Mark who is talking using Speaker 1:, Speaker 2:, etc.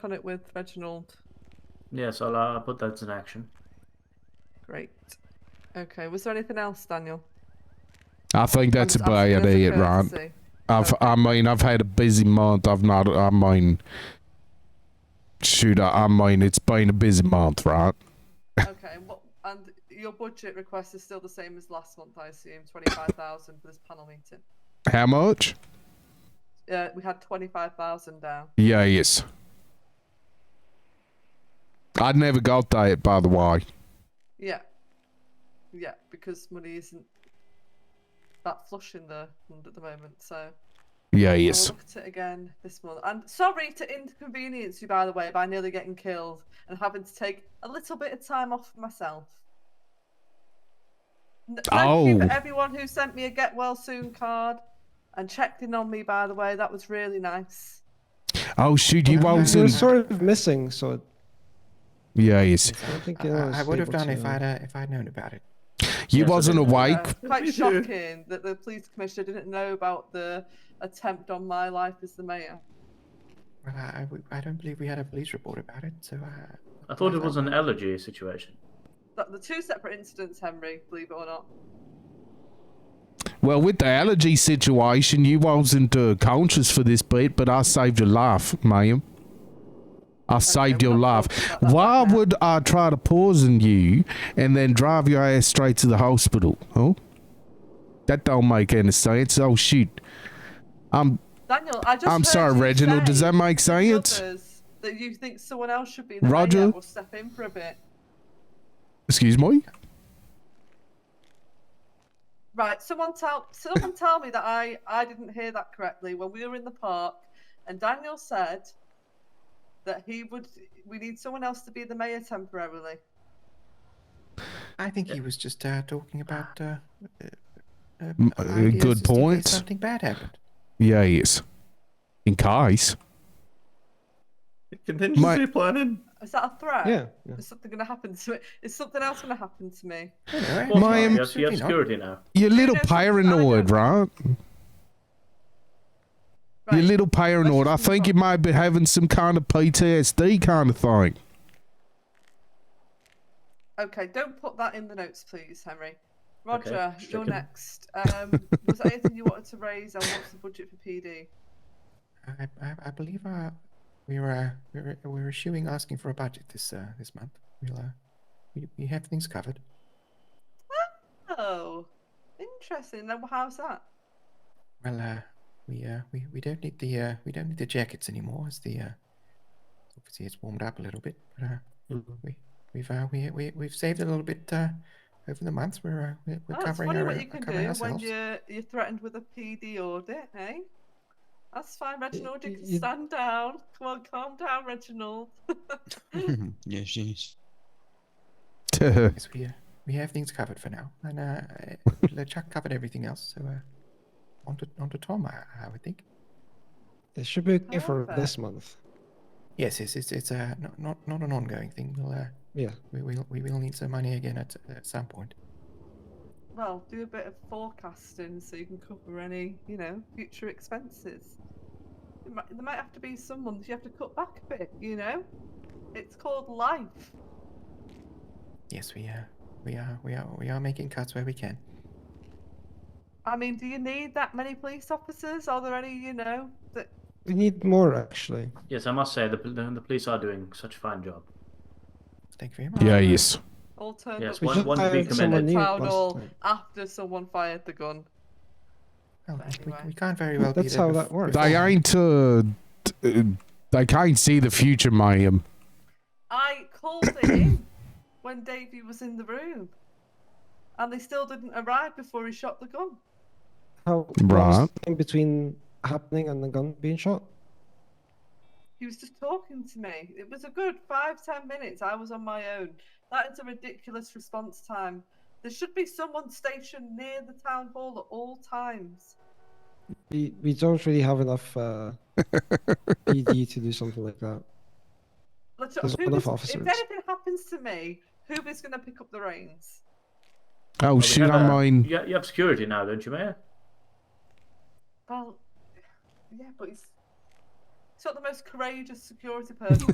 Speaker 1: Cut it with Reginald.
Speaker 2: Yes, I'll uh, put that in action.
Speaker 1: Great. Okay. Was there anything else, Daniel?
Speaker 3: I think that's
Speaker 1: I'm- I'm
Speaker 3: about
Speaker 1: asking as a
Speaker 3: it, right?
Speaker 1: courtesy.
Speaker 3: I've, I mean, I've had a busy month. I've not, I mean, shoot, I, I mean, it's been a busy month, right?
Speaker 1: Okay. What? And your budget request is still the same as last month, I assume. Twenty-five thousand for this panel meeting.
Speaker 3: How much?
Speaker 1: Yeah, we had twenty-five thousand down.
Speaker 3: Yeah, yes. I never got that, by the way.
Speaker 1: Yeah. Yeah, because money isn't that flush in the fund at the moment, so
Speaker 3: Yeah,
Speaker 1: I'll
Speaker 3: yes.
Speaker 1: look at it again this month. And sorry to inconvenience you, by the way, by nearly getting killed and having to take a little bit of time off for myself. N- Thank you
Speaker 3: Oh.
Speaker 1: for everyone who sent me a get well soon card and checked in on me. By the way, that was really nice.
Speaker 3: Oh, shoot, you
Speaker 4: You're
Speaker 3: wasn't.
Speaker 4: sort of missing, so
Speaker 3: Yeah, yes.
Speaker 4: I don't think
Speaker 5: I,
Speaker 4: you was
Speaker 5: I would have
Speaker 4: able
Speaker 5: done
Speaker 4: to-
Speaker 5: if I'd uh, if I'd known about it.
Speaker 3: You
Speaker 2: Yes, I
Speaker 3: wasn't
Speaker 2: did.
Speaker 3: awake.
Speaker 1: Uh, quite shocking that the police commissioner didn't know about the attempt on my life as the mayor.
Speaker 5: Well, I, I w- I don't believe we had a police report about it. So uh,
Speaker 2: I thought it was an allergy situation.
Speaker 1: That the two separate incidents, Henry, believe it or not.
Speaker 3: Well, with the allergy situation, you wasn't uh, conscious for this bit, but I saved your life, ma'am. I saved
Speaker 1: we're
Speaker 3: your
Speaker 1: not
Speaker 3: life.
Speaker 1: talking about that
Speaker 3: Why
Speaker 1: right now.
Speaker 3: would I try to poison you and then drive your ass straight to the hospital? Huh? That don't make any sense. Oh Um, shoot. I'm
Speaker 1: Daniel, I just.
Speaker 3: I'm
Speaker 1: heard
Speaker 3: sorry,
Speaker 1: you
Speaker 3: Reginald. Does
Speaker 1: say
Speaker 3: that make
Speaker 1: to
Speaker 3: sense?
Speaker 1: others That you think someone else should be the
Speaker 3: Roger?
Speaker 1: mayor or step in for a bit.
Speaker 3: excuse me.
Speaker 1: Right, someone tell someone tell me that I I didn't hear that correctly when we were in the park, and Daniel said that he would we need someone else to be the mayor temporarily.
Speaker 5: I think he was just uh, talking about. Uh, uh, uh,
Speaker 3: M- uh, good
Speaker 5: ideas just in case
Speaker 3: point.
Speaker 5: Something bad happened.
Speaker 3: Yeah, yes. In case.
Speaker 6: Contingency
Speaker 3: My-
Speaker 6: planning.
Speaker 1: Is that a threat?
Speaker 4: Yeah, yeah.
Speaker 1: Is something going to happen to me? Is something else going to happen to me?
Speaker 5: You know,
Speaker 2: Of course
Speaker 3: My-
Speaker 2: not.
Speaker 3: am-
Speaker 2: Yes, you have
Speaker 5: absolutely not.
Speaker 2: security now.
Speaker 3: You're a little
Speaker 1: knows what's going
Speaker 3: paranoid, right? You're a
Speaker 1: Right.
Speaker 3: little paranoid. I
Speaker 1: Questions
Speaker 3: think you
Speaker 1: from-
Speaker 3: might be having some kind of PTSD kind of thing.
Speaker 1: Okay, don't put that in the notes, please, Henry. Roger,
Speaker 2: just
Speaker 1: you're
Speaker 2: checking.
Speaker 1: next. Um, was there anything you wanted to raise? And what's the budget for PD?
Speaker 5: I, I, I believe uh, we were uh, we were we were eschewing asking for a budget this uh, this month. We'll uh, we, we have things covered.
Speaker 1: Oh, interesting. Then how's that?
Speaker 5: Well, uh, we uh, we, we don't need the uh, we don't need the jackets anymore. As the uh, obviously it's warmed up a little bit, but uh,
Speaker 1: Mm-hmm.
Speaker 5: we we've uh, we, we we've saved a little bit uh, over the months. We're uh, we're, we're
Speaker 1: Oh, it's
Speaker 5: covering
Speaker 1: funny
Speaker 5: our
Speaker 1: what
Speaker 5: own-
Speaker 1: you can
Speaker 5: covering
Speaker 1: do when
Speaker 5: ourselves.
Speaker 1: you're you're threatened with a PD audit, eh? That's fine, Reginald. You can
Speaker 4: you-
Speaker 1: stand down. Come on, calm down, Reginald.
Speaker 7: yes, yes.
Speaker 5: Yes, we uh, we have things covered for now, and uh, uh, Chuck covered everything else. So uh, on to on to Tom, I, I would think.
Speaker 4: It should be okay for
Speaker 1: However-
Speaker 4: this month.
Speaker 5: Yes, yes, it's it's uh, not not not an ongoing thing. We'll uh,
Speaker 4: Yeah.
Speaker 5: we will we will need some money again at, at some point.
Speaker 1: Well, do a bit of forecasting so you can cover any, you know, future expenses. There might, there might have to be some months you have to cut back a bit, you know? It's called life.
Speaker 5: Yes, we uh, we are we are we are making cuts where we can.
Speaker 1: I mean, do you need that many police officers? Are there any, you know, that.
Speaker 4: We need more actually.
Speaker 2: Yes, I must say the, the, the police are doing such a fine job.
Speaker 5: Thank you very much.
Speaker 3: Yeah, yes.
Speaker 1: all turned
Speaker 2: Yes,
Speaker 1: up
Speaker 4: We
Speaker 2: One-
Speaker 4: just
Speaker 2: one to be
Speaker 4: hired someone
Speaker 2: commended.
Speaker 4: new
Speaker 1: town
Speaker 4: last
Speaker 1: hall
Speaker 4: time.
Speaker 1: after someone fired the gun.
Speaker 5: Well,
Speaker 1: But
Speaker 5: we,
Speaker 1: anyway.
Speaker 5: we can't very well be
Speaker 4: That's
Speaker 5: there
Speaker 4: how
Speaker 5: bef-
Speaker 4: that works.
Speaker 3: They
Speaker 5: beforehand.
Speaker 3: ain't, uh, d- uh, they can't see the future, ma'am.
Speaker 1: I called it in when Davy was in the room, and they still didn't arrive before he shot the gun.
Speaker 4: How
Speaker 3: Right.
Speaker 4: in between happening and the gun being shot?
Speaker 1: He was just talking to me. It was a good five, ten minutes. I was on my own. That is a ridiculous response time. There should be someone stationed near the town hall at all times.
Speaker 4: We we don't really have enough uh, PD to do something like that.
Speaker 1: Let's-
Speaker 4: There's
Speaker 1: who
Speaker 4: enough
Speaker 1: is-
Speaker 4: officers.
Speaker 1: If anything happens to me, who is going to pick up the reins?
Speaker 3: Oh,
Speaker 2: But we
Speaker 3: shit,
Speaker 2: have
Speaker 3: I
Speaker 2: a-
Speaker 3: mean,
Speaker 2: You, you have security now, don't you, Mayor?
Speaker 1: Well, yeah, but he's, he's not the most courageous security person.